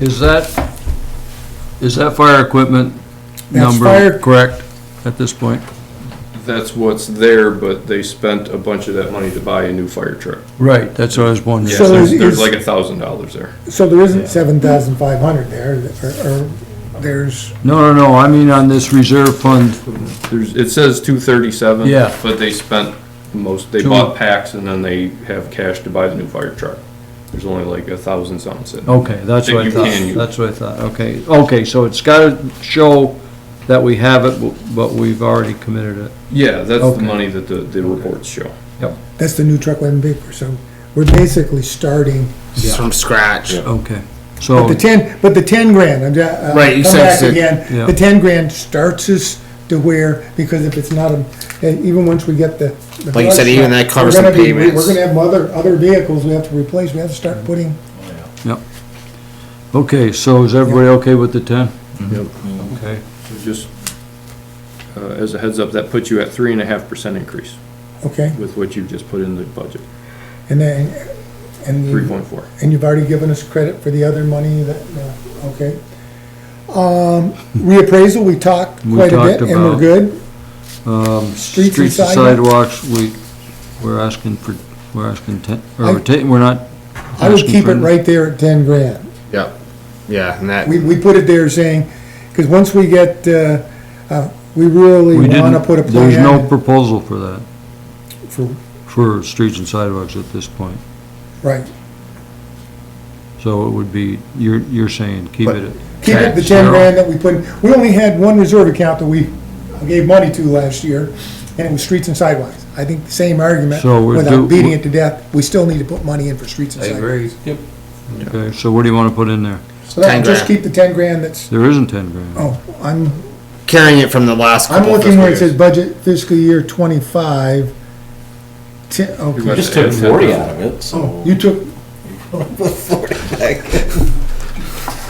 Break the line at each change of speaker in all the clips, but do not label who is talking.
Is that, is that fire equipment
That's
number
fire-
correct at this point?
That's what's there, but they spent a bunch of that money to buy a new fire truck.
Right, that's what I was
Yeah,
wondering.
So
there's,
is-
there's
is-
like a thousand dollars there.
So there isn't seven thousand five hundred there, or, or there's,
No, no, no, I mean on this reserve fund,
There's, it says two thirty-seven.
Yeah.
But they spent most, they
Two-
bought packs and then they have cash to buy the new fire truck. There's only like a thousand something sitting.
okay, that's what I
That you can
thought,
use.
that's what I thought, okay. Okay, so it's gotta show that we have it, bu- but we've already committed it.
Yeah, that's
Okay.
the money that the, the reports show.
that's the new truck lemon paper, so we're basically starting.
Yeah.
from scratch.
Okay,
But
so,
the ten, but the ten grand, I'm, ju- uh,
Oh. Right, you
come
said
back
that-
yeah.
again, the ten grand starts us to where, because if it's not a, and even once we get the. the
Like you said,
brush
even
truck,
that covers
we're
some
gonna be- we-
payments.
We're gonna have other, other vehicles we have to replace, we have to start putting,
okay, so is everybody okay with the ten? Mm-hmm.
Yep.
Okay,
So Just, uh, as a heads up, that puts you at three and a half percent increase
okay,
with what you've just put in the budget,
and then, and. you-
three point four.
And you've already given us credit for the other money that, uh, okay. Um, reappraisal, we talked
We
quite a
talked
bit and we're
about-
good.
um,
Streets and
streets and sidewalks, we, we're asking for, we're asking ten, or we're
I-
ta- we're not.
I would
asking
keep
for-
it right there at ten grand.
Yep. Yeah, and that
We, we put it there saying, because once we get, uh, uh, we really
We
want to
didn't,
put a
there's no
plan
proposal for that,
for,
for streets and sidewalks at this point.
right.
So it would be, you're, you're saying, keep it at.
Keep it the
tax,
ten
zero.
grand that we put, in. we only had one reserve account that we gave money to last year, and it was streets and sidewalks. I think the same argument,
So we're do-
without beating it to death, we still need to put money in for streets and sidewalks.
Yep.
Okay, so what do you wanna put in there?
So that,
10
just
grand.
keep the ten grand that's,
There isn't ten grand.
oh, I'm,
carrying it from the last.
I'm
couple
looking
fiscal
where it says
years.
budget fiscal year twenty-five. Ten,
You
okay,
must-
Just took forty out of it, so.
you took.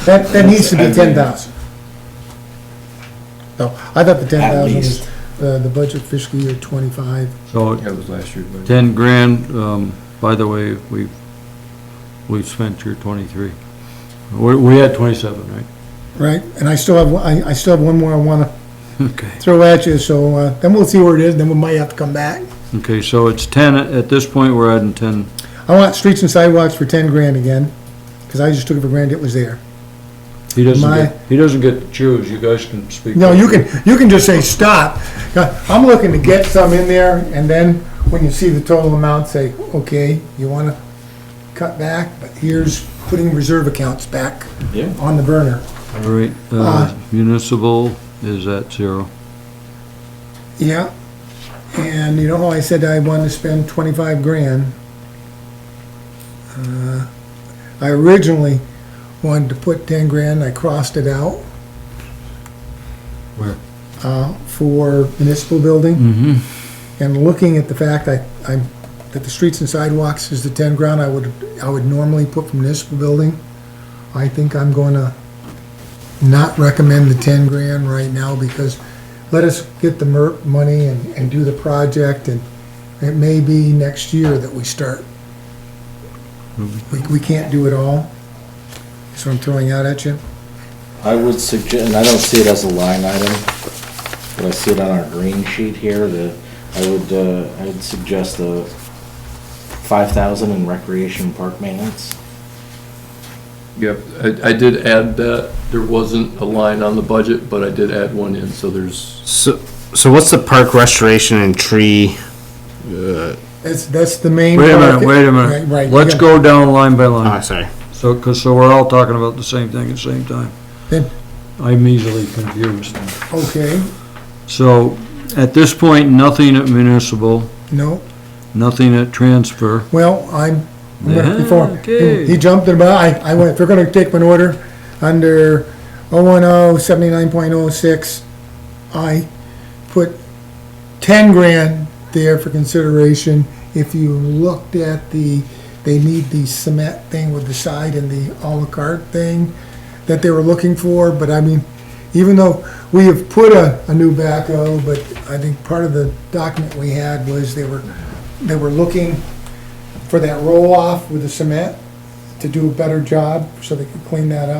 That, that needs to be
I mean-
ten thousand. No, I thought the ten thousand was,
least.
uh, the budget fiscal year twenty-five.
So
That was last year's budget.
ten grand, um, by the way, we've, we've spent your twenty-three. We, we had twenty-seven, right?
Right, and I still have, one- I, I still have one more I wanna
Okay.
throw at you, so, uh, then we'll see where it is, then we might have to come back.
Okay, so it's ten, at this point, we're adding ten,
I want streets and sidewalks for ten grand again, cause I just took it for granted it was there.
he doesn't
My-
get, he doesn't get to choose, you guys can speak.
No, you can, you can just say stop. Now, I'm looking to get some in there, and then when you see the total amount, say, okay, you wanna cut back, but here's putting reserve accounts back
Yeah.
on the burner.
All right,
Uh,
uh, municipal is at zero.
Yeah, and you know how I said I wanted to spend twenty-five grand? Uh, I originally wanted to put ten grand, I crossed it out.
Where?
Uh, for municipal building.
Mm-hmm.
And looking at the fact I, I'm, that the streets and sidewalks is the ten ground I would, I would normally put for municipal building, I think I'm gonna not recommend the ten grand right now because let us get the MERP money and, and do the project and it may be next year that we start. We, we can't do it all. That's what I'm throwing out at you.
I would suggest, and I don't see it as a line item, but I see it on our green sheet here, the, I would, uh, I would suggest the five thousand in recreation park maintenance.
Yep, I, I did add that. There wasn't a line on the budget, but I did add one in, so there's
So, so what's the park restoration and tree?
That's, that's the main.
Wait a minute,
market.
wait a
Right, right,
minute,
you
let's
got-
go down line by
Oh,
line,
sorry.
so, cause, so we're all talking about the same thing at the same time.
Then-
I'm easily confused.
Okay,
So, at this point, nothing at municipal,
no.
nothing at transfer.
Well, I'm, I'm gonna- before,
Okay.
he jumped in, but I, I went, if you're gonna take an order under oh one oh seventy-nine point oh six, I put ten grand there for consideration. If you looked at the, they need the cement thing with the side and the à la carte thing that they were looking for, but I mean, even though we have put a, a new backhoe, but I think part of the document we had was they were, they were looking for that roll-off with the cement to do a better job, so they could clean that up.